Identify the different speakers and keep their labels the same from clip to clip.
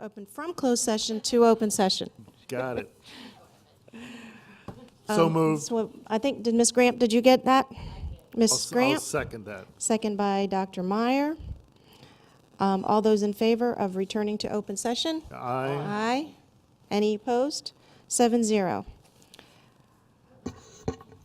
Speaker 1: Open from closed session to open session.
Speaker 2: Got it. So moved.
Speaker 1: So I think, did Ms. Gramp, did you get that?
Speaker 2: I'll
Speaker 1: Ms.
Speaker 2: s- I'll
Speaker 1: Gramp,
Speaker 2: second that.
Speaker 1: second by Dr. Meyer. Um, All those in favor of returning to open session?
Speaker 2: Aye.
Speaker 1: Aye. Any opposed? Seven zero.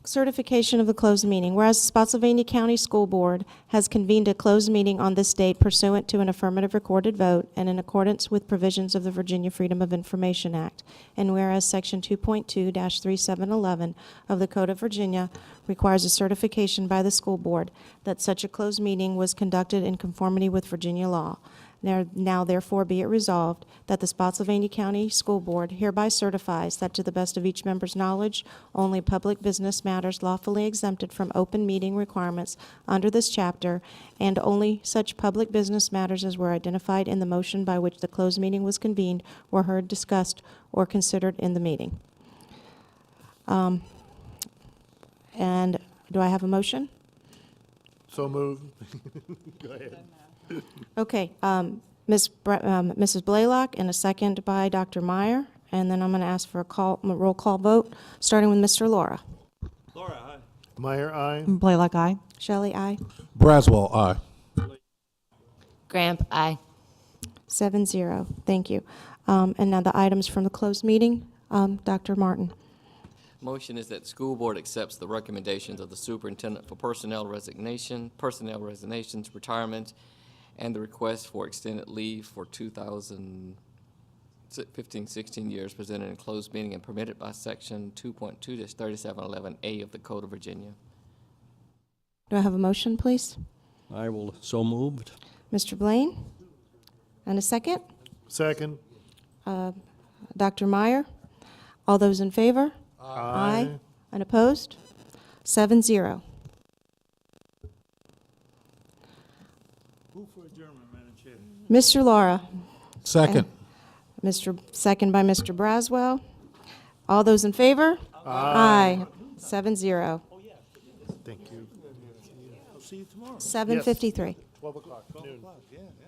Speaker 1: Certification of the closed meeting. Whereas the Spotsylvania County School Board has convened a closed meeting on this date pursuant to an affirmative recorded vote and in accordance with provisions of the Virginia Freedom of Information Act. And whereas Section 2.2-3711 of the Code of Virginia requires a certification by the school board that such a closed meeting was conducted in conformity with Virginia law. Now- Now therefore be it resolved that the Spotsylvania County School Board hereby certifies that to the best of each member's knowledge, only public business matters lawfully exempted from open meeting requirements under this chapter, and only such public business matters as were identified in the motion by which the closed meeting was convened were heard, discussed, or considered in the meeting. Um, And do I have a motion?
Speaker 2: So moved.
Speaker 1: Okay, um, Ms. Bre- um, Mrs. Blaylock, and a second by Dr. Meyer, and then I'm going to ask for a call, a roll call vote, starting with Mr. Laura.
Speaker 2: Meyer, aye.
Speaker 3: Blaylock, aye.
Speaker 1: Shelley, aye.
Speaker 4: Braswell, aye.
Speaker 5: Gramp, aye.
Speaker 1: Seven zero, thank you. Um, And now the items from the closed meeting, Um, Dr. Martin.
Speaker 6: Motion is that the school board accepts the recommendations of the superintendent for personnel resignation, personnel resignations, retirement, and the request for extended leave for 2015-16 years presented in closed meeting and permitted by section 2.2-3711A of the Code of Virginia.
Speaker 1: Do I have a motion, please?
Speaker 7: I will, so moved.
Speaker 1: Mr. Blaine? And a second?
Speaker 2: Second.
Speaker 1: Dr. Meyer? All those in favor? Aye. And opposed? Seven zero. Mr. Laura?
Speaker 4: Second.
Speaker 1: Mr., second by Mr. Braswell. All those in favor? Aye. Seven zero.
Speaker 2: Thank you.
Speaker 1: Seven fifty-three.
Speaker 2: 12 o'clock, noon.